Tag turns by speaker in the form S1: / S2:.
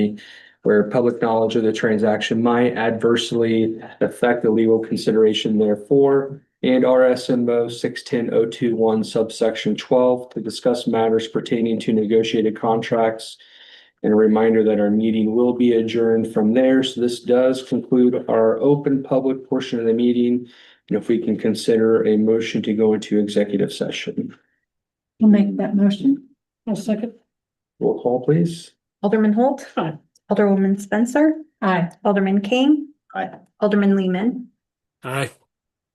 S1: where public knowledge of the transaction might adversely affect the legal consideration therefore, and RSMO six ten oh two one subsection twelve to discuss matters pertaining to negotiated contracts. And a reminder that our meeting will be adjourned from there. So this does conclude our open public portion of the meeting. And if we can consider a motion to go into executive session.
S2: I'll make that motion. I'll second.
S1: Roll call, please.
S3: Alderman Holt.
S2: Aye.
S3: Alderwoman Spencer.
S2: Aye.
S3: Alderman King.
S1: Aye.
S3: Alderman Lehman.
S4: Aye.